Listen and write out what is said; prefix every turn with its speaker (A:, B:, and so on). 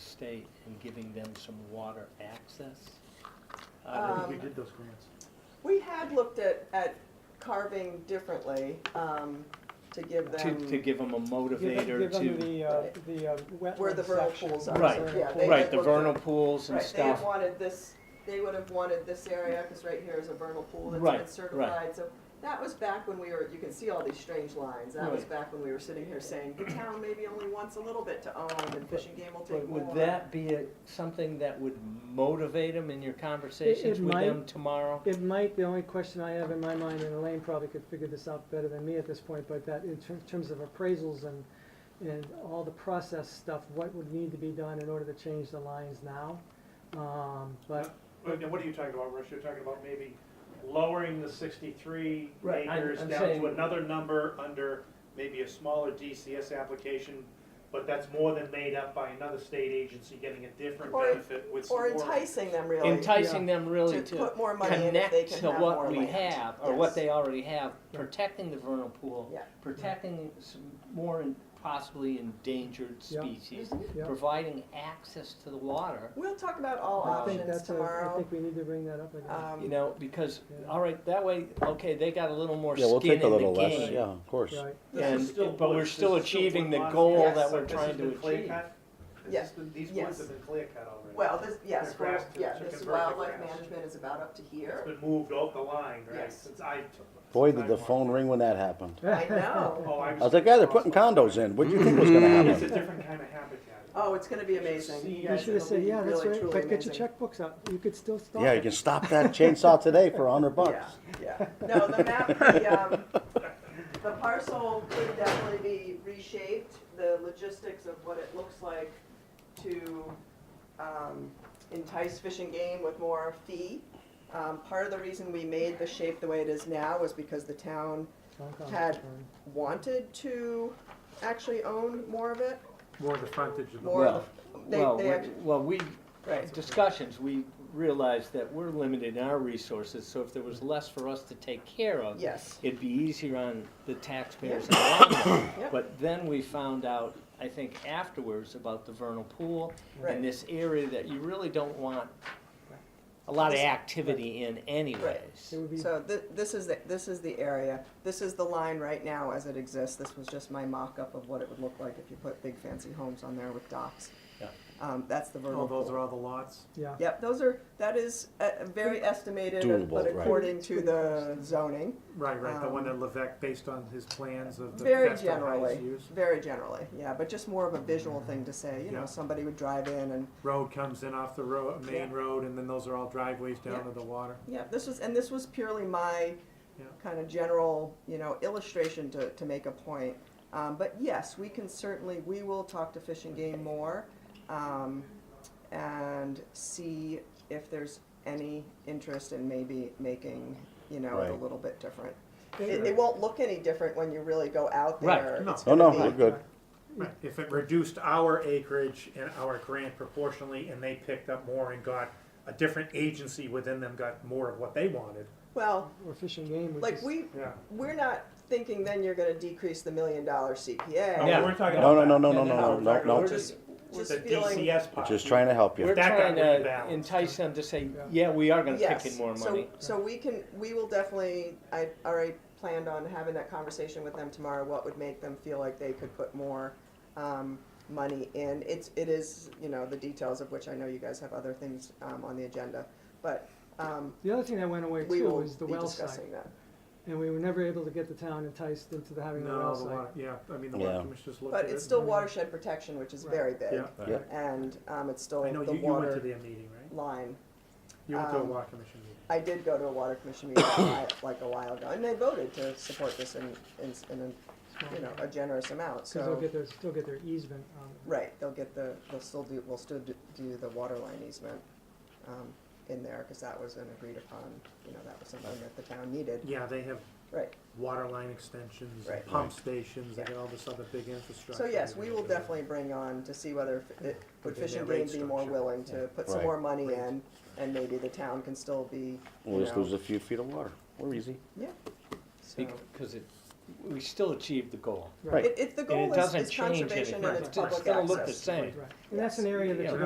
A: State and giving them some water access?
B: I
A: Uh,
B: think we
A: we-
B: did those grants.
C: We had looked at, at carving differently, um, to give
A: To, to
C: them,
A: give them a motivator
D: Give them
A: to,
D: the, uh,
C: Right.
D: the uh,
C: Where the
D: wetland
C: vernal
D: section.
C: pools are.
D: the
A: Right.
D: vernal
C: Yeah,
D: pools.
C: they-
A: right, the
C: looked at-
A: vernal pools and
C: right, they had
A: stuff.
C: wanted this, they would have wanted this area, cause right here is a vernal pool that's
A: Right,
C: been
A: right.
C: certified, so. That was back when we were, you can see all these strange lines, that was
A: Right.
C: back when we were sitting here saying, the town maybe only wants a little bit to own and fishing game will take
A: But
C: more.
A: would that be a- something that would motivate them in your conversations
D: it
A: with
D: might.
A: them tomorrow?
D: It might, the only question I have in my mind, and Elaine probably could figure this out better than me at this point, but that in ter- terms of appraisals and, and all the process stuff, what would need to be done in order to change the lines now? Um, but,
B: But now, what are you talking about, Russ? You're talking about maybe lowering the sixty-three
A: Right, I'm-
B: acres
A: I'm
B: down
A: saying-
B: to another number under maybe a smaller DCS application, but that's more than made up by another state agency getting a different
C: Or-
B: benefit with some
C: Or
B: more.
C: enticing them really.
A: Enticing them really
C: To
A: to
C: put more money in if they
A: connect
C: can
A: to
C: have more
A: what
C: land.
A: we have, or what
C: Yes.
A: they already have, protecting the vernal pool,
C: Yeah.
A: protecting some more en- possibly endangered
D: Yeah.
A: species,
D: yeah,
A: providing access to the water,
C: We'll talk about all
A: I
D: I think
C: options
D: that's, a- I
C: tomorrow.
D: think we need to bring that up again.
C: Um,
A: you know, because,
D: Yeah.
A: all right, that way, okay, they got a little more
E: Yeah, we'll
A: skin in
E: take a
A: the
E: little less,
A: game.
E: yeah, of course.
D: Right,
B: This is
A: And-
B: still
A: but we're
B: woods.
A: still
B: This is
A: achieving the
B: woodland.
A: goal
C: that
B: Yes.
A: we're
B: This
A: trying
B: has
A: to
B: been clear
A: achieve.
B: cut. This
C: Yeah.
B: has been- These
C: Yes.
B: woods have been clear cut already.
C: Well, this, yes,
B: Their
C: for,
B: grass to-
C: yeah,
B: to
C: this
B: convert the
C: wildlife
B: grass.
C: management is about up to
B: It's
C: here.
B: been moved off the line, right?
C: Yes.
B: Since I took.
E: Boy,
B: since
E: did
B: I
E: the
B: walked.
E: phone ring when that happened.
C: I know.
B: Oh, I
E: I was like, yeah, they're putting condos in. What do you think was gonna
B: It's a
E: happen?
B: different kind of habitat.
C: Oh, it's gonna be
B: See,
C: amazing.
D: you should have
C: It'll
D: said,
C: be
D: yeah, that's
C: really,
D: right,
C: truly
D: but get your
C: amazing.
D: checkbooks out, you could still stop it.
E: Yeah, you can stop that chainsaw today for a hundred bucks.
C: Yeah, yeah. No, the map, the, um, the parcel could definitely be reshaped, the logistics of what it looks like to, um, entice fish and game with more fee. Um, part of the reason we made the shape the way it is now was because the town
D: Hong Kong,
C: Had-
D: um,
C: wanted to actually own more of it,
B: More the frontage of
C: more of the,
A: Well,
C: they, they,
A: we-
C: act-
A: well, we,
C: right,
A: discussions, we realized that we're limited in our resources, so if there was less for us to take care of,
C: yes,
A: it'd be easier on the taxpayers in the long run.
C: Yeah.
A: But then we found out, I think afterwards, about the vernal pool and
C: right,
A: this area that you really don't want a lot of activity in anyways.
D: It would be,
C: so thi- this is, the this is the area, this is the line right now as it exists, this was just my mock-up of what it would look like if you put big fancy homes on there with docks.
E: Yeah.
C: Um, that's the vernal pool.
B: Oh, all the lots?
D: yeah.
C: Yep, those are, that is, uh, very estimated, uh, but
E: Doable, right.
C: according to the zoning,
B: Right, right, the one
C: Um,
B: that Levesque, based on his plans of the
C: Very
B: best and highest
C: generally.
B: use.
C: very generally, yeah, but just more of a visual thing to say, you know,
B: Yeah.
C: somebody would drive in and
B: Road comes in off the road, main
C: Yeah.
B: road, and then those are all driveways down
C: Yeah.
B: to the water.
C: Yeah, this was, and this was purely my
B: Yeah.
C: kind of general, you know, illustration to, to make a point. Um, but yes, we can certainly, we will talk to Fish and Game more, um, and see if there's any interest in maybe making, you know, it a
E: Right.
C: little bit different. It, it
D: It-
C: won't look any different when you really go out
A: Right.
C: there.
B: No.
C: It's
E: Oh, No, no,
C: gonna be-
E: we're good.
B: Right, if it reduced our acreage and our grant proportionally, and they picked up more and got, a different agency within them got more of what they wanted.
C: Well,
D: Or fishing game, which
C: like,
D: is-
C: we,
B: Yeah.
C: we're not thinking then you're gonna decrease the million dollar CPA.
A: Yeah.
B: Oh, we're talking
E: No, no,
B: about
E: no,
B: that.
E: no, no, no,
B: we're talking
E: no,
A: We're
B: about
E: no.
A: just,
B: With
C: Just
B: the
C: feeling,
B: DCS part.
E: Just trying to help
A: we're
E: you.
B: That got
A: trying to
B: rebalanced.
A: entice them to say,
D: Yeah.
A: yeah, we are gonna
C: Yes.
A: kick in more
C: So-
A: money.
C: So we can, we will definitely, I already planned on having that conversation with them tomorrow, what would make them feel like they could put more, um, money in. It's, it is, you know, the details of which I know you guys have other things, um, on the agenda, but, um,
D: The other thing that went away
C: we
D: too
C: will
D: was the
C: be
D: well site,
C: discussing that.
D: and we were never able to get the town enticed into the having a
B: No,
D: well
B: the
D: site.
B: water, yeah, I mean, the water
E: Yeah.
B: commissioners looked at it.
C: But it's still
B: and-
C: watershed protection, which is
D: Right.
C: very big,
B: Yeah,
E: Yeah.
C: and, um, it's still
B: I know,
C: the
B: you, you went to
C: water
B: their meeting, right?
C: line.
B: You went to a
C: um,
B: water commission meeting.
C: I did go to a water commission meeting a while- like a while ago, and they voted to support this in, in, in, a, you know, a generous amount, so.
D: Cause they'll get their, still get their easement on it.
C: Right, they'll get the, they'll still do, we'll still do- do the water line easement um, in there, because that was an agreed upon, you know, that was something that the town needed.
B: Yeah, they have
C: Right,
B: water line extensions,
C: Right.
B: pump stations, they
C: Yeah.
B: got all this other big infrastructure.
C: so yes, we will
B: Yeah.
C: definitely bring on to see whether f- it- would
B: Within
C: Fish and
B: their
C: Game
B: rate
C: be more
B: structure.
C: willing to put some
E: Right.
C: more money
B: Rate.
C: in, and maybe the town can still be, you
E: We'll just
C: know,
E: lose a few feet of water. We're easy.
C: so.
A: Because it, we still achieved the goal.
E: Right.
C: It, it, the
A: And
C: goal
A: it
C: is
A: doesn't
C: is
A: change
C: conservation
A: anything.
C: and
A: It's
C: it's
A: it's
C: public
A: gonna look the
C: access.
A: same.
D: Right, and that's an area that
A: Yeah,
D: you